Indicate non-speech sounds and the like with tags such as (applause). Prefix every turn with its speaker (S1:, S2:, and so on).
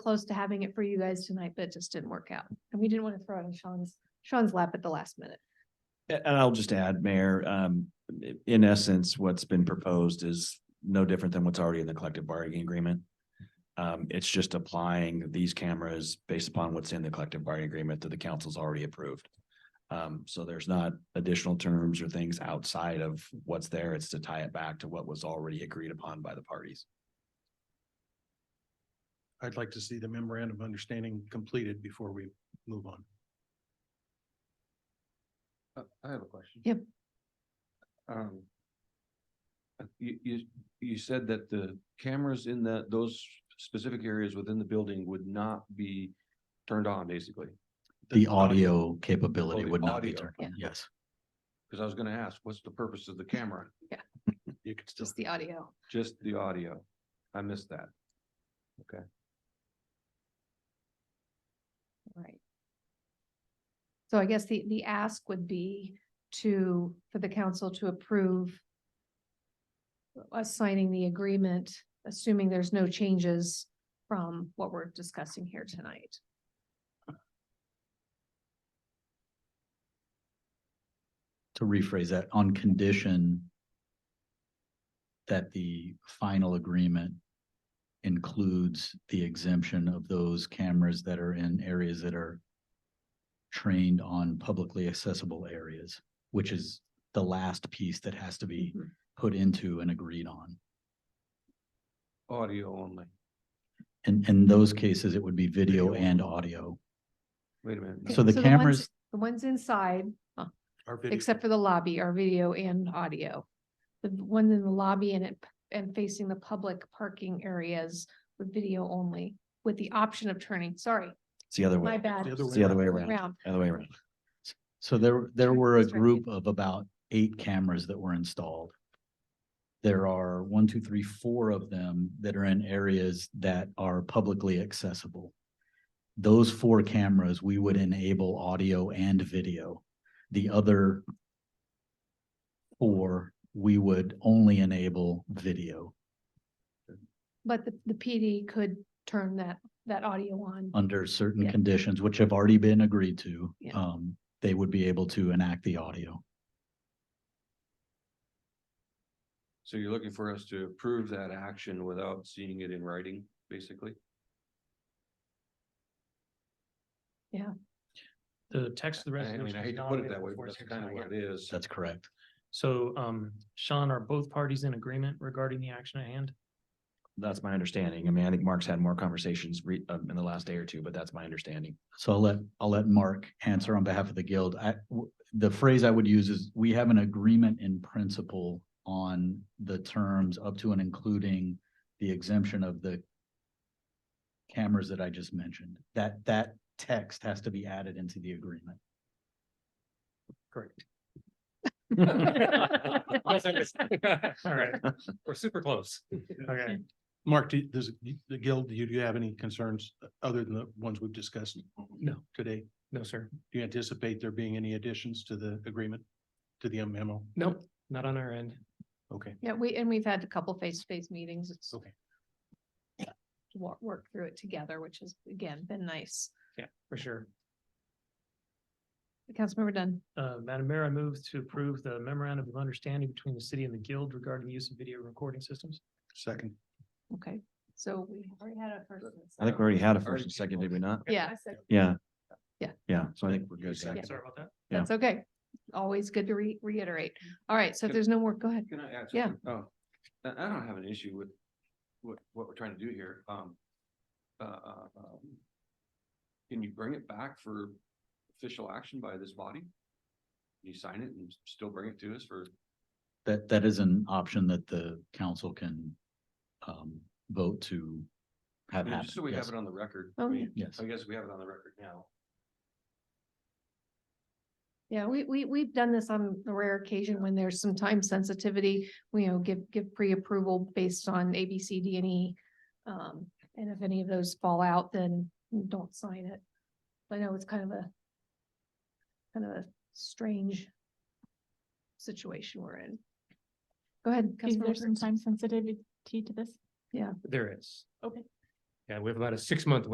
S1: close to having it for you guys tonight, but it just didn't work out. And we didn't want to throw it on Sean's, Sean's lap at the last minute.
S2: A- And I'll just add, Mayor, um, in essence, what's been proposed is no different than what's already in the collective bargaining agreement. Um, it's just applying these cameras based upon what's in the collective bargaining agreement that the council's already approved. Um, so there's not additional terms or things outside of what's there. It's to tie it back to what was already agreed upon by the parties.
S3: I'd like to see the memorandum of understanding completed before we move on.
S4: Uh, I have a question.
S1: Yep.
S4: Um. uh, You, you, you said that the cameras in the, those specific areas within the building would not be turned on, basically.
S5: The audio capability
S4: the
S5: would not be
S4: audio.
S5: turned on, yes.
S4: Cause I was gonna ask, what's the purpose of the camera?
S3: You could still,
S1: Just the audio.
S4: Just the audio. I missed that.
S1: Right. So I guess the, the ask would be to, for the council to approve us signing the agreement, assuming there's no changes from what we're discussing here tonight.
S5: To rephrase that, on condition that the final agreement includes the exemption of those cameras that are in areas that are trained on publicly accessible areas, which is the last piece that has to be
S1: Mhm.
S5: put into and agreed on.
S4: Audio only.
S5: And in those cases, it would be video
S3: Video.
S5: and audio.
S4: Wait a minute. no,
S1: Okay,
S5: So the
S1: ones-
S5: cameras-
S1: The ones inside,
S3: our video,
S1: except for the lobby, are video and audio. The ones in the lobby and it, and facing the public parking areas with video only, with the option of turning, sorry,
S2: It's the other
S1: my
S2: way,
S1: bad.
S3: The other
S2: it's the other way around,
S1: Round.
S2: other way around.
S5: So there, there
S1: Mm-hmm. Sure,
S5: were a
S1: that's right.
S5: group of about eight cameras that were installed. There are one, two, three, four of them that are in areas that are publicly accessible. Those four cameras, we would enable audio and video. The other four, we would only enable video
S1: But the, the PD could turn that, that audio on.
S5: under certain
S1: Yeah.
S5: conditions, which have already been agreed to.
S1: Yeah.
S5: Um, they would be able to enact the audio.
S4: So you're looking for us to approve that action without seeing it in writing, basically?
S6: The text of the
S4: I I
S6: resolution.
S4: mean, I
S6: is
S4: hate to
S6: not
S4: put it
S6: available
S4: that way,
S6: for
S4: but that's kind of
S6: signature
S4: what
S6: yet.
S4: it is.
S5: That's correct.
S6: So, um, Sean, are both parties in agreement regarding the action at hand?
S2: That's my understanding. I mean, I think Mark's had more conversations re- um, in the last day or two, but that's my understanding.
S5: So I'll let, I'll let Mark answer on behalf of the guild. I, w- the phrase I would use is, we have an agreement in principle on the terms up to and including the exemption of the cameras that I just mentioned. That, that text has to be added into the agreement.
S6: Correct. (laughs) All right, we're super close. Okay,
S3: Mark, do, does, the guild, do you, do you have any concerns other than the ones we've discussed?
S6: No.
S3: Today,
S6: no, sir.
S3: do you anticipate there being any additions to the agreement, to the memo?
S6: Nope, not on our end.
S3: Okay,
S1: Yeah, we, and we've had a couple face-to-face meetings. It's
S3: okay.
S1: work, work through it together, which has again been nice.
S6: Yeah, for sure.
S1: Councilmember Dunn,
S6: Uh, Madam Mayor, I move to approve the memorandum of understanding between the city and the guild regarding the use of video recording systems.
S3: Second,
S1: okay, so we already had a first. and a
S2: I think
S1: second.
S2: we already had a
S4: Already
S2: first and
S4: did
S2: second,
S4: both.
S2: did we not?
S1: Yeah,
S2: Yeah.
S1: Yeah.
S2: Yeah, so I think we're
S4: Yeah.
S2: good.
S4: Second.
S6: Sorry about that.
S2: Yeah.
S1: that's okay. Always good to re- reiterate. All right, so if
S4: Good.
S1: there's no more, go ahead.
S4: Can I add
S1: Yeah.
S4: something? Oh, I, I don't have an issue with what, what we're trying to do here. Um, uh, uh, um, can you bring it back for official action by this body? Can You sign it and still bring it to us for,
S5: That, that is an option that the council can, um, vote to
S4: I
S5: have
S4: mean, just so
S5: happen.
S4: we have
S5: Yes,
S4: it on the record.
S1: Oh,
S4: I
S1: yeah.
S4: mean,
S5: yes.
S4: I guess we have it on the record now.
S1: Yeah, we, we, we've done this on a rare occasion when there's some time sensitivity, we, you know, give, give pre-approval based on A, B, C, D, and E. Um, and if any of those fall out, then don't sign it. I know it's kind of a, kind of a strange situation we're in. Go ahead.
S7: Is
S1: Councilmember
S7: there some
S1: Prince.
S7: time sensitivity to this?
S6: There is.
S7: Okay.
S6: Yeah, we have about a six month